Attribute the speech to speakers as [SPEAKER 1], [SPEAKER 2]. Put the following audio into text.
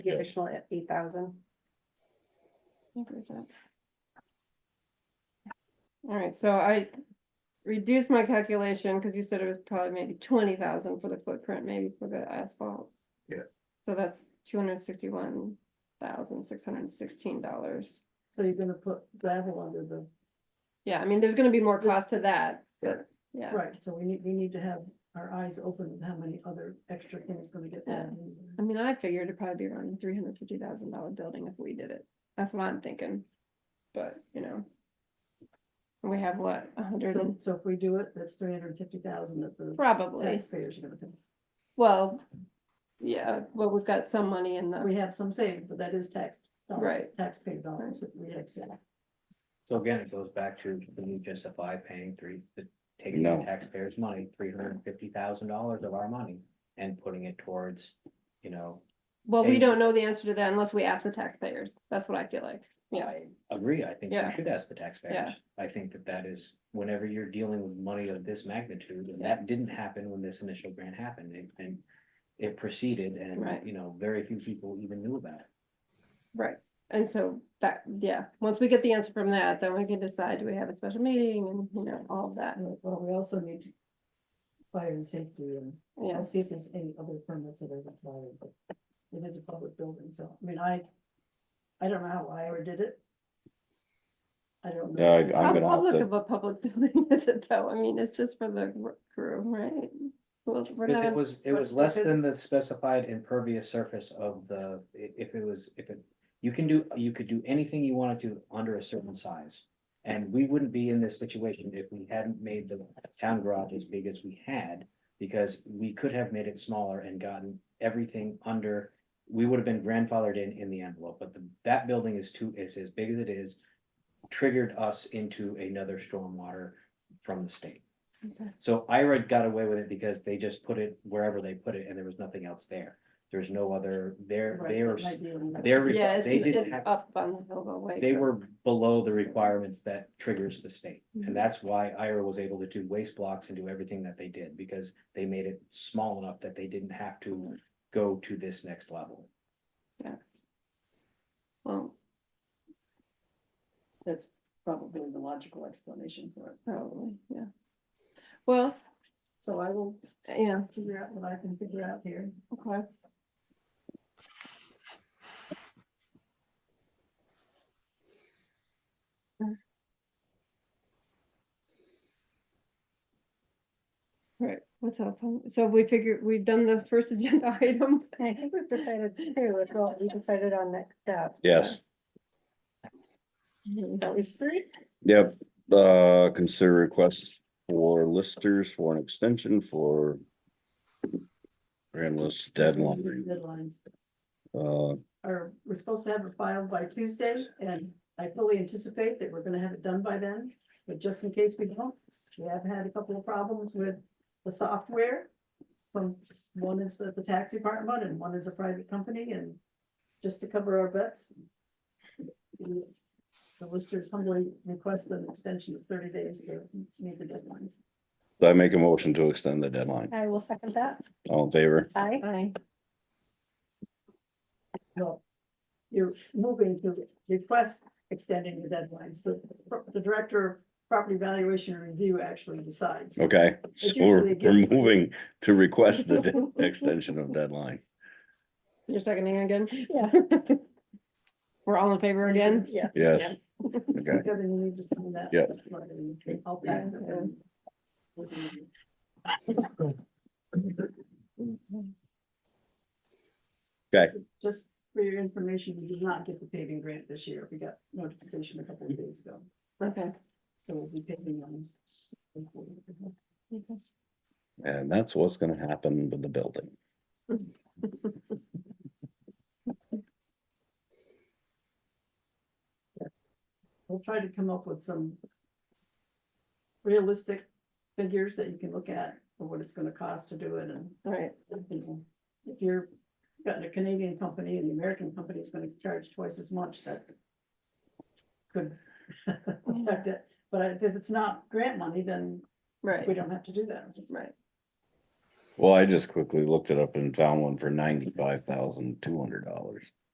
[SPEAKER 1] the additional eight thousand.
[SPEAKER 2] I'll agree with that. All right, so I reduced my calculation, because you said it was probably maybe twenty thousand for the footprint, maybe for the asphalt.
[SPEAKER 3] Yeah.
[SPEAKER 2] So that's two hundred sixty-one thousand, six hundred sixteen dollars.
[SPEAKER 4] So you're gonna put gravel under the,
[SPEAKER 2] Yeah, I mean, there's gonna be more cost to that,
[SPEAKER 3] Right.
[SPEAKER 2] but, yeah,
[SPEAKER 4] right, so we need, we need to have our eyes open with how many other extra things gonna get
[SPEAKER 2] Yeah.
[SPEAKER 4] done.
[SPEAKER 2] I mean, I figured it'd probably be around three hundred fifty thousand dollar building if we did it, that's what I'm thinking, but, you know. We have what, a hundred
[SPEAKER 4] So-
[SPEAKER 2] and,
[SPEAKER 4] So if we do it, that's three hundred and fifty thousand that the
[SPEAKER 2] probably.
[SPEAKER 4] taxpayers are gonna pay.
[SPEAKER 2] Well, yeah, well, we've got some money in the,
[SPEAKER 4] We have some saved, but that is tax. dollars-
[SPEAKER 2] Right.
[SPEAKER 4] Taxpayer dollars that we have saved.
[SPEAKER 3] So again, it goes back to, can you justify paying three, the- taking
[SPEAKER 5] No.
[SPEAKER 3] the taxpayers' money, three hundred and fifty thousand dollars of our money? And putting it towards, you know,
[SPEAKER 2] well, we
[SPEAKER 3] Hey.
[SPEAKER 2] don't know the answer to that unless we ask the taxpayers. That's what I feel like. Yeah,
[SPEAKER 3] I agree, I think
[SPEAKER 2] Yeah.
[SPEAKER 3] we should ask the taxpayers.
[SPEAKER 2] Yeah.
[SPEAKER 3] I think that that is, whenever you're dealing with money of this magnitude, and that didn't happen when this initial grant happened, and- and. It proceeded
[SPEAKER 2] Right.
[SPEAKER 3] and, you know, very few people even knew about it.
[SPEAKER 2] right. And so that, yeah, once we get the answer from that, then we can decide, do we have a special meeting and, you know, all of that.
[SPEAKER 4] Uh, Well, we also need fire and safety and I'll
[SPEAKER 2] Yes,
[SPEAKER 4] see if there's any other permits that are required, but it is a public building, so, I mean, I, I don't know how I ever did it. I don't
[SPEAKER 5] Yeah, I-
[SPEAKER 4] know.
[SPEAKER 5] I'm
[SPEAKER 2] how
[SPEAKER 5] gonna have
[SPEAKER 2] public
[SPEAKER 5] to-
[SPEAKER 2] of a public building is it though? I mean, it's just for the r- crew, right? Well, we're
[SPEAKER 3] Because it
[SPEAKER 2] not,
[SPEAKER 3] was, it
[SPEAKER 4] what-
[SPEAKER 3] was
[SPEAKER 4] what
[SPEAKER 3] less
[SPEAKER 4] is-
[SPEAKER 3] than the specified impervious surface of the, i- if it was, if it. You can do, you could do anything you wanted to under a certain size. And we wouldn't be in this situation if we hadn't made the town garage as big as we had. Because we could have made it smaller and gotten everything under, we would have been grandfathered in in the envelope, but the, that building is too, is as big as it is. Triggered us into another stormwater from the state. So Ira got away with it because they just put it wherever they put it and there was nothing else there. There's no other, they're,
[SPEAKER 4] Right,
[SPEAKER 3] they're,
[SPEAKER 4] that might be in there.
[SPEAKER 3] they're,
[SPEAKER 2] yeah, it's,
[SPEAKER 3] they didn't
[SPEAKER 2] it's
[SPEAKER 3] have,
[SPEAKER 2] up on the hill, but wait.
[SPEAKER 3] they were below the requirements that triggers the state.
[SPEAKER 2] Mhm.
[SPEAKER 4] Mm-hmm.
[SPEAKER 3] And that's why Ira was able to do waste blocks and do everything that they did because they made it small enough that they didn't have
[SPEAKER 4] Mm-hmm.
[SPEAKER 3] to go to this next level.
[SPEAKER 2] Well,
[SPEAKER 4] That's probably the logical explanation for it.
[SPEAKER 2] probably, yeah. Well,
[SPEAKER 4] So I will
[SPEAKER 2] yeah,
[SPEAKER 4] figure out what I can figure out here.
[SPEAKER 2] okay. Right, what's else? on- So we figured, we've done the first agenda item.
[SPEAKER 1] And I think we've decided too, with what we decided on next step.
[SPEAKER 5] Yes,
[SPEAKER 1] That was three.
[SPEAKER 5] yep, uh, consider requests for listers for an extension for. Grand list deadline,
[SPEAKER 4] Deadlines.
[SPEAKER 5] uh,
[SPEAKER 4] Are, we're supposed to have it filed by Tuesday, and I fully anticipate that we're gonna have it done by then. But just in case we don't, we have had a couple of problems with the software. From, one is with the tax department and one is a private company, and just to cover our butts. The listers humbly request an extension of thirty days to meet the deadlines.
[SPEAKER 5] I make a motion to extend the deadline,
[SPEAKER 1] I will second that.
[SPEAKER 5] all in favor?
[SPEAKER 1] Aye.
[SPEAKER 2] Aye.
[SPEAKER 4] Well, you're moving to request extending the deadlines. The, the director of property valuation and review actually decides.
[SPEAKER 5] Okay, so we're, we're moving to request the de- extension of deadline,
[SPEAKER 2] You're seconding again?
[SPEAKER 1] Yeah.
[SPEAKER 2] We're all in favor again?
[SPEAKER 1] Yeah.
[SPEAKER 5] yes, okay.
[SPEAKER 4] Kevin, you need to send that.
[SPEAKER 5] Yeah.
[SPEAKER 4] I'll back it up.
[SPEAKER 5] Okay.
[SPEAKER 4] Just for your information, we did not get the paving grant this year. We got notification a couple of days ago.
[SPEAKER 2] Okay.
[SPEAKER 4] So we'll be paving on.
[SPEAKER 5] And that's what's gonna happen with the building.
[SPEAKER 4] Yes. We'll try to come up with some realistic figures that you can look at for what it's gonna cost to do it and,
[SPEAKER 2] All right,
[SPEAKER 4] you know, if you're got a Canadian company and the American company is gonna charge twice as much, that could affect it. But if it's not grant money, then
[SPEAKER 2] right,
[SPEAKER 4] we don't have to do that.
[SPEAKER 2] right.
[SPEAKER 5] Well, I just quickly looked it up and found one for ninety-five thousand two hundred dollars.